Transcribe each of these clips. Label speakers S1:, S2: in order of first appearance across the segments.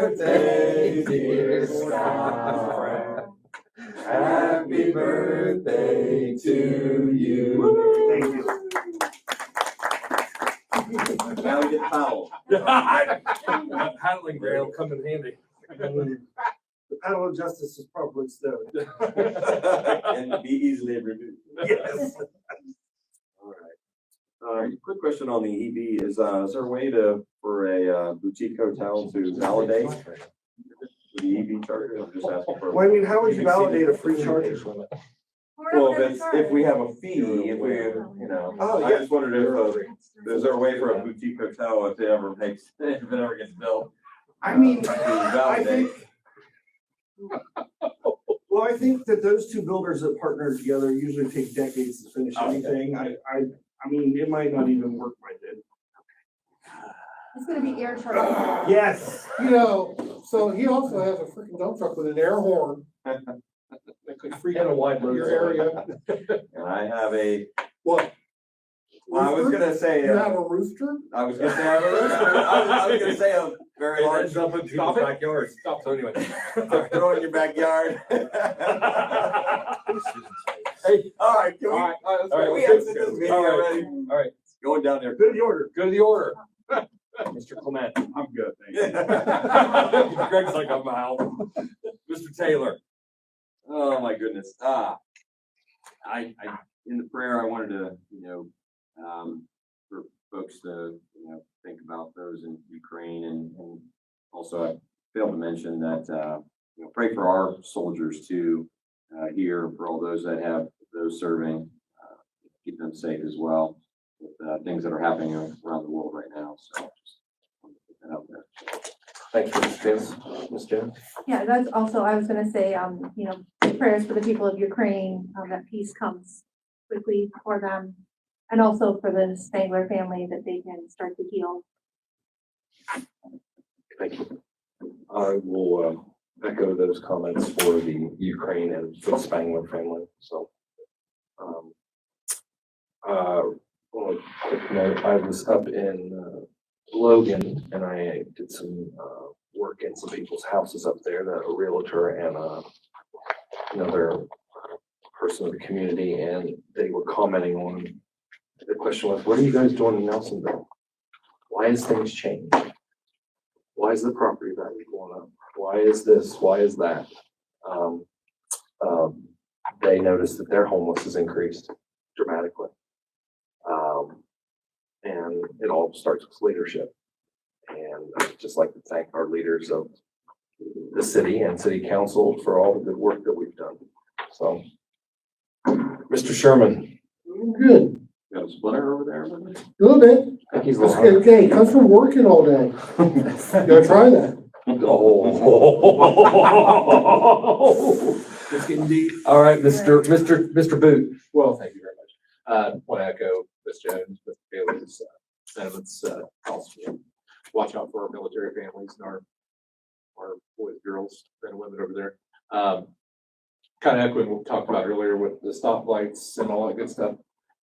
S1: birthday, dear Sky. Happy birthday to you.
S2: Thank you.
S1: Now you howl.
S3: Paddling rail come in handy.
S2: The panel of justice is probably still.
S1: And be easily removed.
S2: Yes.
S1: All right. Uh, quick question on the EV is, uh, is there a way to, for a uh, boutique hotel to validate the EV charger? I'm just asking for.
S2: Well, I mean, how would you validate a free charger?
S4: We're not
S1: Well,
S4: gonna
S1: if it's,
S4: charge.
S1: if we have a fee, if we, you know,
S2: Oh,
S1: I
S2: yeah.
S1: just wondered if, uh, is there a way for a boutique hotel if it ever makes, if it ever gets built?
S2: I mean,
S1: uh, to
S2: I
S1: validate?
S2: think. Well, I think that those two builders that partner together usually take decades to finish
S1: Okay.
S2: anything. I, I, I mean, it might not even work by then.
S4: It's gonna be air charge.
S2: Yes.
S5: You know, so he also has a freaking dump truck with an air horn. That could freak
S3: And a
S5: out
S3: wide
S5: your
S3: load.
S5: area.
S1: And I have a,
S5: What?
S1: I was gonna say,
S5: You have
S1: uh,
S5: a rooster?
S1: I was gonna say, I was I was gonna say a very large
S3: Stop it.
S1: Stop it.
S3: Backyard. Stop, so anyway.
S1: Throw it in your backyard.
S3: Hey,
S1: All right, can
S3: all
S1: we,
S3: right, all right, let's
S1: all right,
S3: go.
S1: we
S3: Let's
S1: have
S3: go.
S1: this meeting
S3: All right,
S1: already.
S3: All right,
S1: Going down there.
S2: Good order.
S3: go to the order. Mr. Clement. I'm good, Greg's like, I'm out. Mr. Taylor.
S1: Oh, my goodness. Ah, I, I, in the prayer, I wanted to, you know, um, for folks to, you know, think about those in Ukraine and, and also I failed to mention that, uh, you know, pray for our soldiers too, uh, here, for all those that have, those serving, uh, keep them safe as well with, uh, things that are happening around the world right now. So just wanted to put that out there.
S3: Thanks, Mr. Jones. Ms. Jones.
S4: Yeah, that's also, I was gonna say, um, you know, prayers for the people of Ukraine, um, that peace comes quickly for them. And also for the Spangler family that they can start to heal.
S3: Thank you. I will uh, echo those comments for the Ukraine and for the Spangler family, so. um, uh, On a quick note, I was up in uh, Logan and I did some uh, work in some people's houses up there, that a realtor and uh, another person of the community, and they were commenting on, the question was, what are you guys doing in Nelsonville? Why has things changed? why is the property value going up? Why is this? Why is that? Um, um, they noticed that their homeless has increased dramatically. Um, and it all starts with leadership. And I'd just like to thank our leaders of the city and city council for all the good work that we've done. So, Mr. Sherman,
S5: Good,
S1: Got a splitter over there? Linda?
S5: a little bit.
S3: I think he's a
S5: That's
S3: little
S5: okay,
S3: hungry.
S5: okay, comes from working all day. You gotta try that.
S3: Oh. It's getting deep. All right, Mr. Mr. Mr. Boot.
S6: Well, thank you very much. Uh, want to echo Ms. Jones, Mr. Bailey's uh, sentiments, uh, also watch out for our military families and our, our boys, girls, men and women over there. Um, kind of echoing what we talked about earlier with the stoplights and all that good stuff.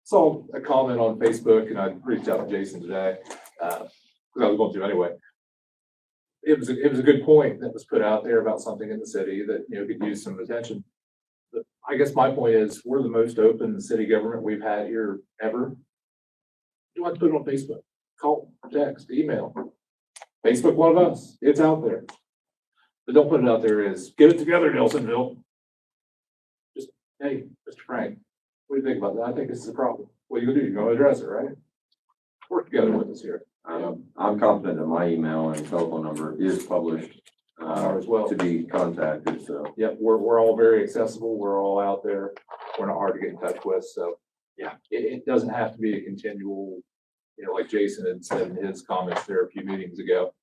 S6: Saw a comment on Facebook and I reached out to Jason today, uh, because I was going to anyway. It was, a- it was a good point that was put out there about something in the city that, you know, could use some attention. I guess my point is, we're the most open city government we've had here ever. You want to put it on Facebook, call, text, email. Facebook, one of us, it's out there. But don't put it out there as, get it together, Nelsonville. Just, hey, Mr. Frank, what do you think about that? I think this is a problem. What are you gonna do? You're gonna address it, right? Work together with us here,
S1: Um, I'm confident that my email and telephone number is published,
S6: Ours
S1: uh,
S6: as well.
S1: to be contacted, so.
S6: Yep, we're, we're all very accessible. We're all out there. We're not hard to get in touch with, so. Yeah, it, it doesn't have to be a continual, you know, like Jason had said in his comments there a few meetings ago.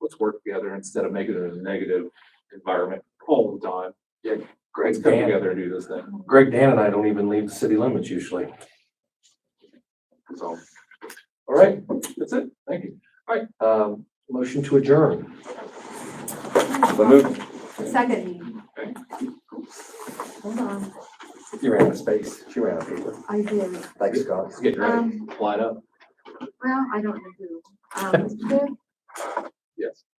S6: Let's work together instead of making it a negative environment all the time. Let's
S3: Greg
S6: come
S3: Dan,
S6: together and do this thing.
S3: Greg Dan and I don't even leave the city limits usually.
S6: So, all right, that's it. Thank you.
S3: Um, motion to adjourn.
S1: So move,
S4: Second. Hold on,
S3: You ran out of space. She ran out of paper.
S4: I did,
S3: Thanks, Scott.
S6: Let's get ready.
S4: um,
S6: Line up.
S4: well, I don't know who. Um,
S6: Yes.